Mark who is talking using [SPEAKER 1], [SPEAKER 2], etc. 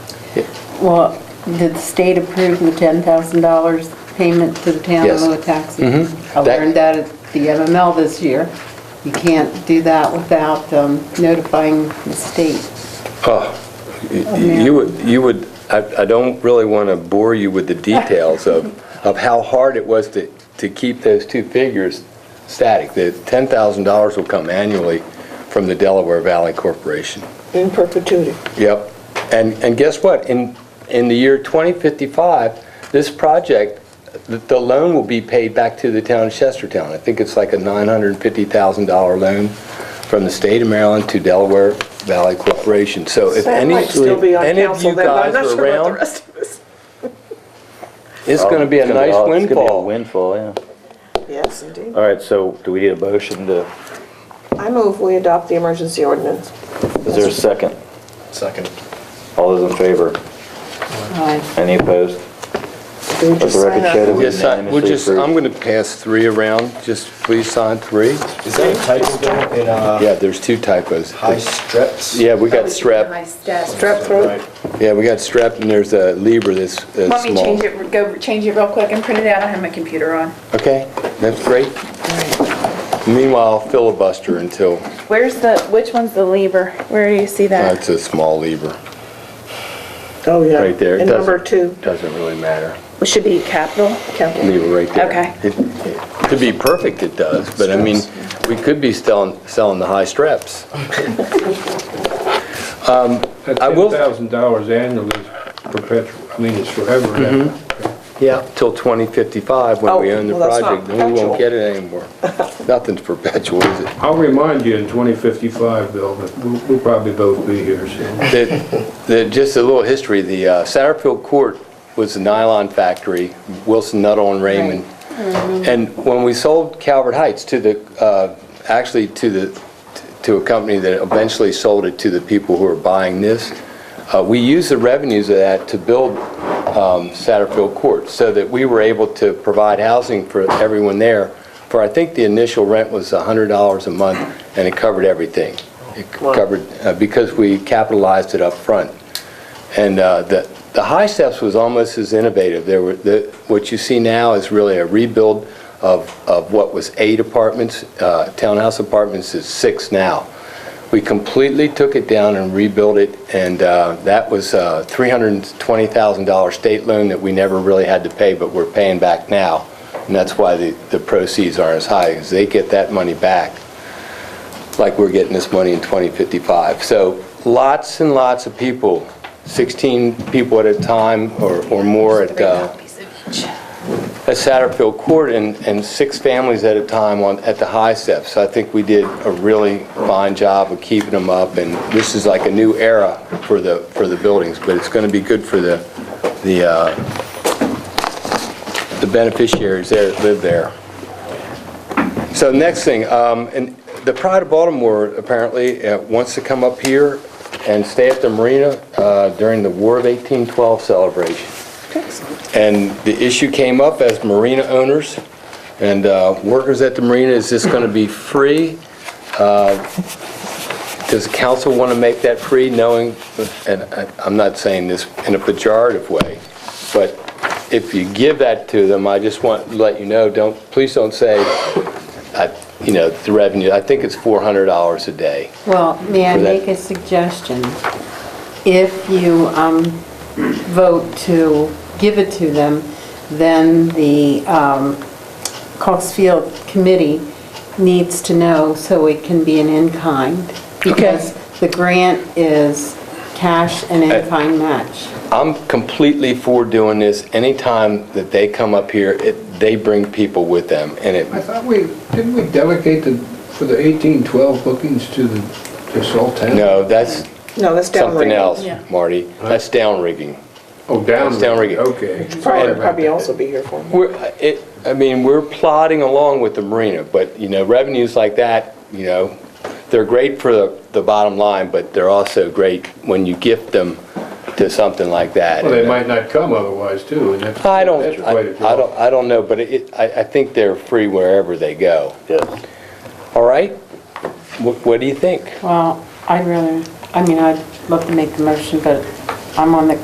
[SPEAKER 1] Well, did the state approve the $10,000 payment to the town in
[SPEAKER 2] Yes. Mm-hmm.
[SPEAKER 1] lieu of taxes? I
[SPEAKER 2] That-
[SPEAKER 1] learned that at the MML this year. You can't do that without um, notifying the state.
[SPEAKER 2] You would, you would, I I don't really want to bore you with the details of, of how hard it was to, to keep those two figures static. The $10,000 will come annually from the Delaware Valley Corporation.
[SPEAKER 3] in perpetuity.
[SPEAKER 2] Yep. And, and guess what? In, in the year 2055, this project, the- the loan will be paid back to the town of Chestertown. I think it's like a $950,000 loan from the state of Maryland to Delaware Valley Corporation. So if
[SPEAKER 3] That
[SPEAKER 2] any,
[SPEAKER 3] might still be on
[SPEAKER 2] any of
[SPEAKER 3] council
[SPEAKER 2] you
[SPEAKER 3] then, but I'm
[SPEAKER 2] guys
[SPEAKER 3] not
[SPEAKER 2] are
[SPEAKER 3] sure about the
[SPEAKER 2] around,
[SPEAKER 3] rest of us.
[SPEAKER 2] it's going to be a
[SPEAKER 4] It's gonna
[SPEAKER 2] nice
[SPEAKER 4] oh, It's gonna be a
[SPEAKER 2] windfall.
[SPEAKER 4] windfall, yeah.
[SPEAKER 3] Yes, indeed.
[SPEAKER 4] All right, so do we need a motion to,
[SPEAKER 3] I move we adopt the emergency ordinance.
[SPEAKER 4] is there a second?
[SPEAKER 2] Second.
[SPEAKER 4] All those in favor?
[SPEAKER 1] Aye.
[SPEAKER 4] Any opposed?
[SPEAKER 3] Do we
[SPEAKER 4] Let
[SPEAKER 3] just
[SPEAKER 4] the record
[SPEAKER 3] sign
[SPEAKER 4] show that
[SPEAKER 3] up?
[SPEAKER 4] we
[SPEAKER 2] Yes, I- we'll
[SPEAKER 4] unanimously
[SPEAKER 2] just, I'm
[SPEAKER 4] approved.
[SPEAKER 2] going to pass three around. Just please sign three.
[SPEAKER 5] Is that a typo though, in uh,
[SPEAKER 2] Yeah, there's two typos.
[SPEAKER 5] high strips?
[SPEAKER 2] Yeah, we got strep.
[SPEAKER 3] Strep throat?
[SPEAKER 5] Right.
[SPEAKER 2] Yeah, we got strep and there's a Libra that's that's small.
[SPEAKER 6] Want me to change it, go change it real quick and print it out? I have my computer on.
[SPEAKER 2] Okay, that's great. Meanwhile, filibuster until,
[SPEAKER 6] Where's the, which one's the lever? Where do you see that?
[SPEAKER 2] that's a small lever,
[SPEAKER 3] Oh, yeah.
[SPEAKER 2] right there. It
[SPEAKER 3] And number
[SPEAKER 2] doesn't-
[SPEAKER 3] two,
[SPEAKER 2] Doesn't really matter.
[SPEAKER 6] It should be capital.
[SPEAKER 3] capital.
[SPEAKER 2] Lever right there.
[SPEAKER 6] Okay.
[SPEAKER 2] It- To be perfect, it does, but I mean, we could be selling, selling the high straps.
[SPEAKER 7] That
[SPEAKER 2] I will-
[SPEAKER 7] $10,000 annually is perpetual, I mean, it's forever. now.
[SPEAKER 2] Mm-hmm. Yeah. Till 2055, when we
[SPEAKER 3] Oh,
[SPEAKER 2] own the
[SPEAKER 3] well, that's not
[SPEAKER 2] project, then we won't
[SPEAKER 3] perpetual.
[SPEAKER 2] get it anymore. Nothing's perpetual, is it?
[SPEAKER 7] I'll remind you in 2055, Bill, but we'll we'll probably both be here soon.
[SPEAKER 2] that, that just a little history, the uh, Satterfield Court was a nylon factory, Wilson Nuttall and Raymond. And when we sold Calvert Heights to the, uh, actually to the, to a company that eventually sold it to the people who are buying this, uh, we used the revenues of that to build um, Satterfield Court, so that we were able to provide housing for everyone there. For I think the initial rent was $100 a month, and it covered everything. It covered, uh, because we capitalized it up front. And uh, the, the high steps was almost as innovative. There were, the, what you see now is really a rebuild of, of what was eight apartments, uh, townhouse apartments is six now. We completely took it down and rebuilt it, and uh, that was a $320,000 state loan that we never really had to pay, but we're paying back now. And that's why the, the proceeds aren't as high, because they get that money back like we're getting this money in 2055. So lots and lots of people, 16 people at a time or or more at uh, at Satterfield Court and and six families at a time on, at the high steps. So I think we did a really fine job of keeping them up, and this is like a new era for the, for the buildings, but it's going to be good for the, the uh, the beneficiaries there that live there. So next thing, um, and the Pride of Baltimore apparently uh, wants to come up here and stay at the marina uh, during the War of 1812 celebration. And the issue came up as marina owners and uh, workers at the marina, is this going to be free? Uh, Does council want to make that free, knowing, and I- I'm not saying this in a pejorative way, but if you give that to them, I just want to let you know, don't, please don't say, I- you know, the revenue, I think it's $400 a day.
[SPEAKER 1] Well, may I
[SPEAKER 2] For that-
[SPEAKER 1] make a suggestion? If you um, vote to give it to them, then the um, Cox Field Committee needs to know so it can be an in-kind, because the grant is cash and in-kind match.
[SPEAKER 2] I'm completely for doing this. Anytime that they come up here, it- they bring people with them, and it,
[SPEAKER 8] I thought we, didn't we delegate the, for the eighteen twelve bookings to the, to Sultan?
[SPEAKER 2] no, that's
[SPEAKER 3] No, that's downrigging.
[SPEAKER 2] something else,
[SPEAKER 6] Yeah.
[SPEAKER 2] Marty. That's downrigging.
[SPEAKER 7] Oh, down.
[SPEAKER 2] It's downrigging.
[SPEAKER 7] Okay.
[SPEAKER 3] Probably,
[SPEAKER 7] Sorry about
[SPEAKER 3] probably
[SPEAKER 7] that.
[SPEAKER 3] also be here for me.
[SPEAKER 2] We're, it, I mean, we're plodding along with the marina, but, you know, revenues like that, you know, they're great for the, the bottom line, but they're also great when you gift them to something like that.
[SPEAKER 7] Well, they might not come otherwise too, and that's.
[SPEAKER 2] I don't,
[SPEAKER 7] that's
[SPEAKER 2] I
[SPEAKER 7] quite a
[SPEAKER 2] I don't, I don't know, but it, I, I think they're free wherever they go.
[SPEAKER 4] Yes.
[SPEAKER 2] All right? What, what do you think?
[SPEAKER 1] Well, I'd rather, I mean, I'd love to make the motion, but I'm on the